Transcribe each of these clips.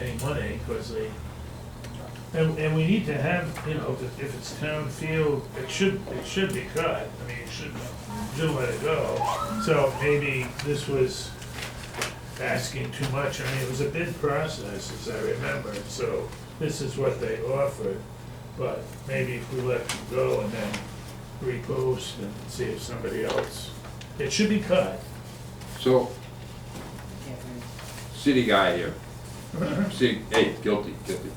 any money, because they, and, and we need to have, you know, if, if it's town field, it should, it should be cut, I mean, you shouldn't, shouldn't let it go. So maybe this was asking too much, I mean, it was a bid process, as I remember, so this is what they offered. But maybe if we let them go and then repost and see if somebody else, it should be cut. So, city guy here, city, hey, guilty, guilty.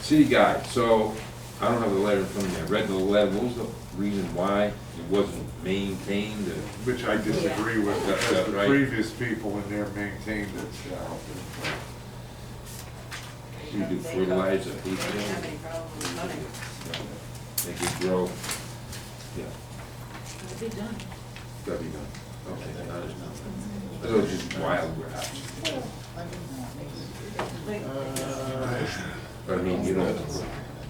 City guy, so, I don't have the letter in front of me, I read the letter, what was the reason why it wasn't maintained? or- Which I disagree with, That's because the right. previous people in there maintained it, so. We do fertilizer, They heat, didn't have they any problem with money. could grow, yeah, It'll be done. gotta be done, okay, I understand. That was just wild grass, Like, Uh, but I mean, you don't,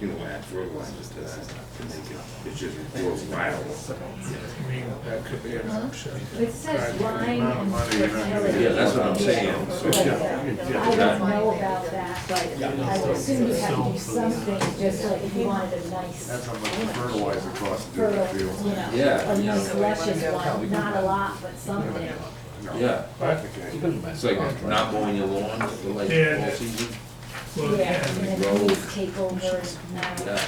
you don't add fertilizer to that, uh, to make it, it's just grows wild. I mean, that could be an option. It says line amount of and money you're not gonna fertility. Yeah, that's what I'm saying, so, yeah, yeah. I don't know about that, but I would assume you have to do something, just like if you wanted a That's nice how much fertilizer costs to do the fertile, you field. know, Yeah, a yeah. nice luscious one, not a lot, but something. No. Yeah. Okay. It's like not mowing your lawn, for like Yeah. all season, Well, Yeah, yeah, and then the leaves take over, now, yeah.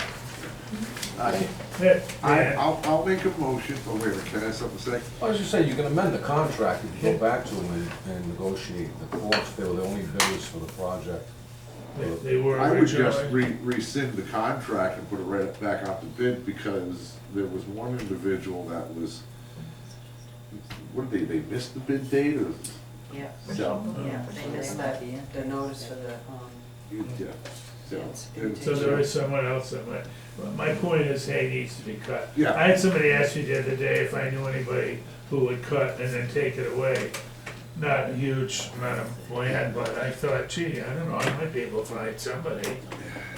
I, yeah, I, yeah. I'll, I'll make a motion, oh wait, a minute, can I have something to say? I was just saying, you can amend the contract, you can go back to them and- and negotiate the costs, they were the only bidders for the project. They- They were I would just originally, re- rescind the contract and put it right back out to bid, because there was one individual that was, what did they, they missed the bid date, or? Yeah, So, yeah, Oh, they missed that, the notice for the, um, yeah, so. and- so there is someone else that might, well, my point is, hay needs to be cut. Yeah. I had somebody ask me the other day if I knew anybody who would cut and then take it away. Not a huge amount of land, but I thought, gee, I don't know, I might be able to find somebody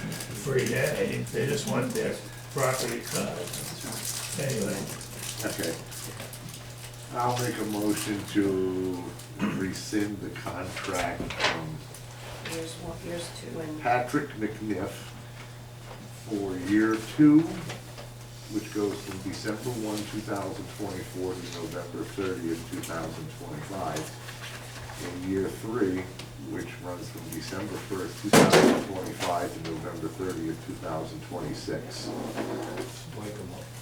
free day, they just want their property cut. Anyway, Okay. I'll make a motion to rescind the contract from years one, years two, and Patrick McNiff for year two, which goes from December one, two thousand twenty-four to November thirtieth, two thousand twenty-five. And year three, which runs from December first, two thousand twenty-five to November thirtieth, two thousand twenty-six.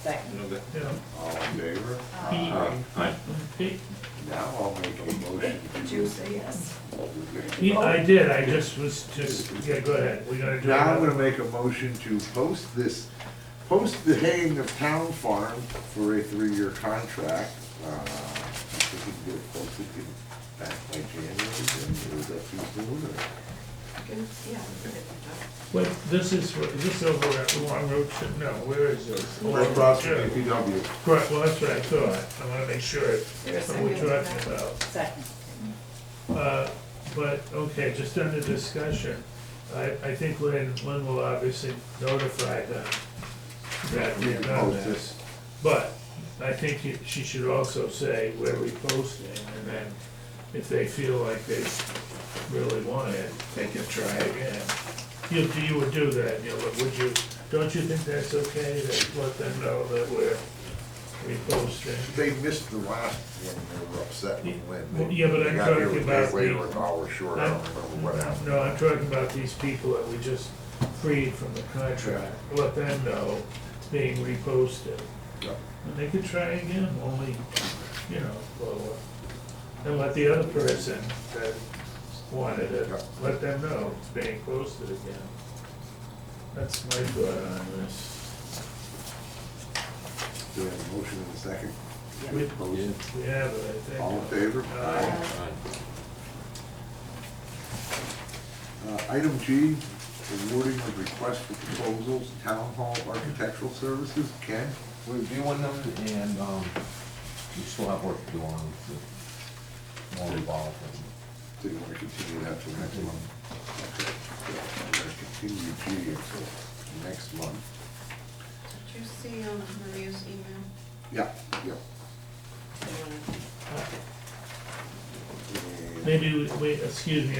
second. you know, All in favor? Aye. Aye. he- Now I'll make a motion Did you to say yes? he- I did, I just was, just, yeah, go ahead, we're gonna do Now I'm gonna that. make a motion to post this, post the haying of town farm for a three-year contract. Uh, I think we can get it posted in- back by January, and is that too soon, or? Good, Yeah. we did. Wait, this is, where- is this over at Long Road, Ch- no, where is this? Right across from DPW. Correct, well, that's what I thought, I wanna make sure Is there a it's what we're second to talking that? about. Second. Uh, But, okay, just under discussion, I, I think Lynn, Lynn will obviously notify them that we've done Repost it. this. But I think you- she should also say where we posting, and then if they feel like they really want it, they can try again. You, you would do that, you know, would you, don't you think that's okay, that let them know that we're reposting? They missed the last one, they were upset with Lynn. Yeah, but I'm They got here talking about way the- over an hour short, I don't remember what No, I'm talking about these people that we just freed from the contract, let them know, being reposted. Yep. And they could try again, only, you know, blow up. And let the other person that wanted it, Yep. let them know it's being posted again. That's my thought on this. Do we have a motion in a second? We Post. we have it, I think. All in favor? Aye. Uh, Item G, awarding of request for proposals, Town Hall Architectural Services, Ken? We're reviewing them and, um, we still have work to do on the, more involved. Do you want to continue that till next month? Okay, yeah, We're going to continue G until next month. Did you see um, Maria's email? Yeah, yeah. Do you wanna- And- Maybe we, we, excuse me,